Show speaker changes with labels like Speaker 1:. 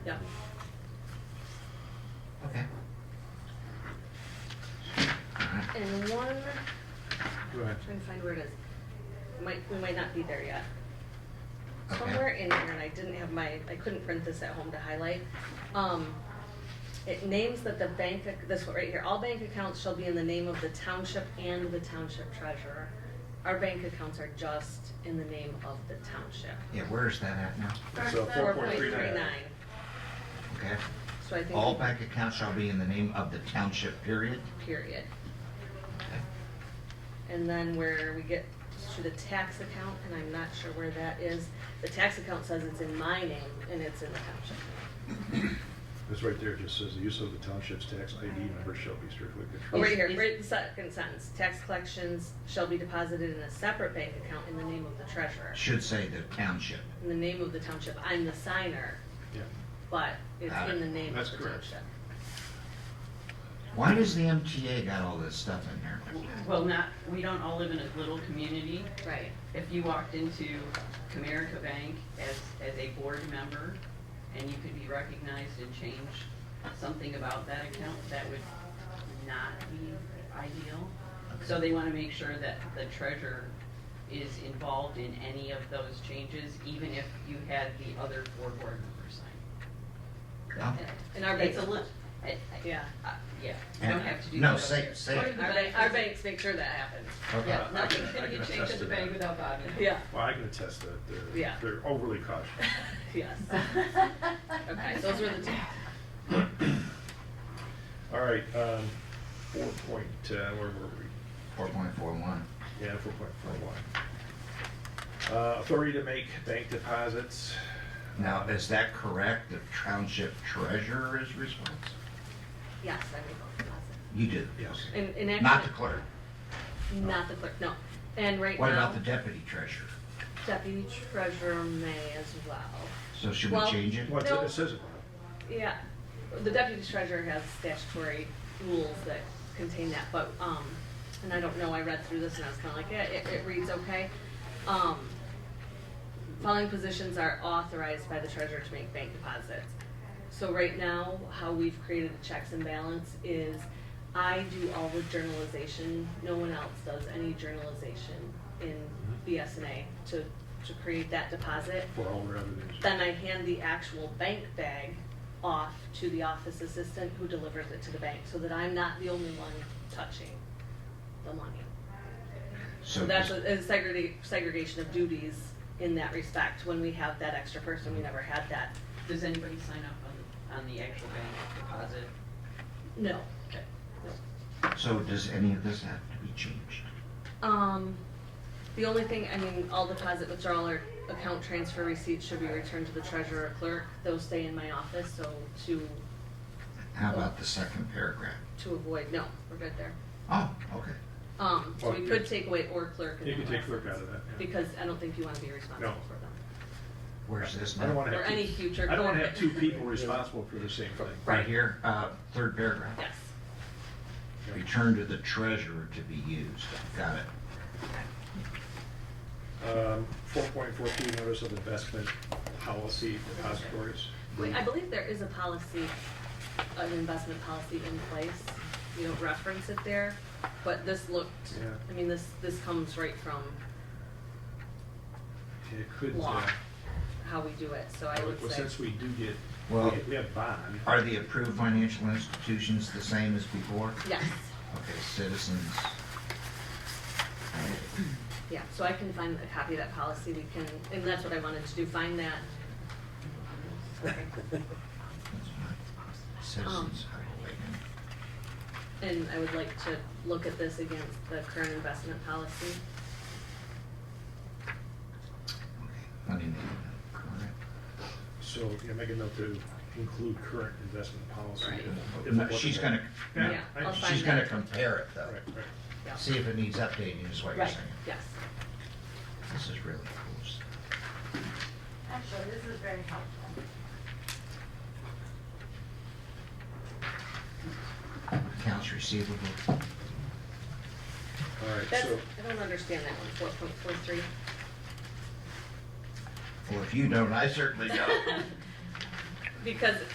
Speaker 1: Yeah.
Speaker 2: Okay.
Speaker 1: And one,
Speaker 3: Go ahead.
Speaker 1: trying to find where it is. Might, we might not be there yet.
Speaker 2: Okay.
Speaker 1: Somewhere in here, and I didn't have my, I couldn't print this at home to highlight. Um, it names that the bank, ac- this one right here, all bank accounts shall be in the name of the township and the township treasurer. Our bank accounts are just in the name of the township.
Speaker 2: Yeah, where is that at now?
Speaker 3: So
Speaker 1: Four point three
Speaker 3: 4.39.
Speaker 1: nine.
Speaker 2: Okay.
Speaker 1: So I think.
Speaker 2: All bank accounts shall be in the name of the township, period.
Speaker 1: Period.
Speaker 2: Okay.
Speaker 1: And then where we get to the tax account, and I'm not sure where that is, the tax account says it's in my name and it's in the township.
Speaker 3: It's right there, it just says the use of the township's tax ID number shall be strictly
Speaker 1: Oh,
Speaker 3: controlled.
Speaker 1: Right here, right in the second sentence, tax collections shall be deposited in a separate bank account in the name of the treasurer.
Speaker 2: Should say the township.
Speaker 1: In the name of the township, I'm the signer,
Speaker 3: Yeah.
Speaker 1: but it's
Speaker 2: Got it.
Speaker 1: in the name of
Speaker 3: That's
Speaker 1: the
Speaker 3: correct.
Speaker 1: township.
Speaker 2: Why does the MTA got all this stuff in there?
Speaker 4: Well, not, we don't all live in a little community.
Speaker 1: Right.
Speaker 4: If you walked into Comerica Bank as, as a board member and you could be recognized and change something about that account, that would not be ideal. So they want to make sure that the treasurer is involved in any of those changes, even if you had the other four board members sign.
Speaker 2: No?
Speaker 1: And our
Speaker 4: It's
Speaker 1: banks,
Speaker 4: a li, I, I,
Speaker 1: yeah,
Speaker 4: uh, yeah, you don't have to do that.
Speaker 2: No, say,
Speaker 4: upstairs.
Speaker 2: say it.
Speaker 1: our bank- our banks make sure that happens.
Speaker 2: Okay.
Speaker 4: Yeah, nothing can get changed at the bank without Bob in it.
Speaker 1: Yeah,
Speaker 3: Well, I can attest that they're,
Speaker 1: Yeah.
Speaker 3: they're overly cautious.
Speaker 1: yes. Okay, those were the two.
Speaker 3: All right, um, four point, uh, where were we?
Speaker 2: Four point four one.
Speaker 3: Yeah, four point four one. Uh, authority to make bank deposits.
Speaker 2: Now, is that correct? The township treasurer is responsible?
Speaker 1: Yes, I make all deposits.
Speaker 2: You do?
Speaker 3: Yes.
Speaker 2: Okay.
Speaker 1: And, and actually.
Speaker 2: Not the clerk.
Speaker 1: Not the clerk, no. And right
Speaker 2: What
Speaker 1: now,
Speaker 2: about the deputy treasurer?
Speaker 1: deputy treasurer may as well.
Speaker 2: So should we
Speaker 1: Well-
Speaker 2: change it?
Speaker 3: Well,
Speaker 1: No.
Speaker 3: it says it.
Speaker 1: Yeah, the deputy treasurer has statutory rules that contain that, but, um, and I don't know, I read through this and I was kinda like, yeah, it, it reads okay. Um, following positions are authorized by the treasurer to make bank deposits. So right now, how we've created the checks and balance is I do all the journalization, no one else does any journalization in BSNA to, to create that deposit.
Speaker 3: for all revenues.
Speaker 1: Then I hand the actual bank bag off to the office assistant who delivers it to the bank so that I'm not the only one touching the money. So that's
Speaker 2: does-
Speaker 1: a a segrega- segregation of duties in that respect. When we have that extra person, we never had that.
Speaker 4: Does anybody sign up on, on the actual bank deposit?
Speaker 1: No.
Speaker 4: Okay.
Speaker 2: So does any of this have to be changed?
Speaker 1: Um, the only thing, I mean, all deposit withdrawal or account transfer receipts should be returned to the treasurer or clerk. Those stay in my office, so to,
Speaker 2: How about the second paragraph?
Speaker 1: to avoid, no, we're good there.
Speaker 2: Oh, okay.
Speaker 1: Um, so we
Speaker 3: Well,
Speaker 1: could
Speaker 3: you-
Speaker 1: take away or clerk. in
Speaker 3: Oh, You
Speaker 1: that
Speaker 3: can take clerk
Speaker 1: instance,
Speaker 3: out of that, yeah.
Speaker 1: Because I don't think you wanna be responsible
Speaker 3: No.
Speaker 1: for them.
Speaker 2: Where's this
Speaker 3: I don't
Speaker 2: now?
Speaker 3: wanna
Speaker 1: Or
Speaker 3: have. two-
Speaker 1: any future
Speaker 3: I don't wanna have
Speaker 1: clerk.
Speaker 3: two people responsible for the same thing.
Speaker 2: Right here, uh, third paragraph.
Speaker 1: Yes.
Speaker 2: Return to the treasurer to be used. Got it.
Speaker 3: Um, four point four two, notice of investment policy depositories.
Speaker 1: Wait, I believe there is a policy, an investment policy in place. You don't reference it there, but this looked,
Speaker 3: Yeah.
Speaker 1: I mean, this, this comes right from
Speaker 3: It could,
Speaker 1: law,
Speaker 3: uh,
Speaker 1: how we do it, so I
Speaker 3: Well,
Speaker 1: would say.
Speaker 3: since we do get,
Speaker 2: Well-
Speaker 3: we- we have bond,
Speaker 2: Are the approved financial institutions the same as before?
Speaker 1: Yes,
Speaker 2: Okay, citizens.
Speaker 1: yeah, so I can find a copy of that policy, we can, and that's what I wanted to do, find that.
Speaker 2: Citizens.
Speaker 1: Um.
Speaker 2: oh, highway.
Speaker 1: And I would like to look at this against the current investment policy.
Speaker 2: Let me make that correct.
Speaker 3: so you know, make a note to include current investment policy.
Speaker 1: Right.
Speaker 3: if- if it
Speaker 2: But
Speaker 3: wasn't
Speaker 2: She's
Speaker 3: there.
Speaker 2: gonna,
Speaker 3: Yeah,
Speaker 1: Yeah,
Speaker 3: I-
Speaker 1: I'll find
Speaker 2: she's
Speaker 1: that.
Speaker 2: gonna compare it though.
Speaker 3: Right, right.
Speaker 1: Yeah.
Speaker 2: See if it needs updating is what you're
Speaker 1: Right,
Speaker 2: saying.
Speaker 1: yes.
Speaker 2: This is really cool stuff.
Speaker 5: Actually, this is very helpful.
Speaker 2: Accounts receivable.
Speaker 3: All right,
Speaker 1: That's,
Speaker 3: so,
Speaker 1: I don't understand that one, four point four three.
Speaker 2: Well, if you don't, I certainly don't.
Speaker 1: because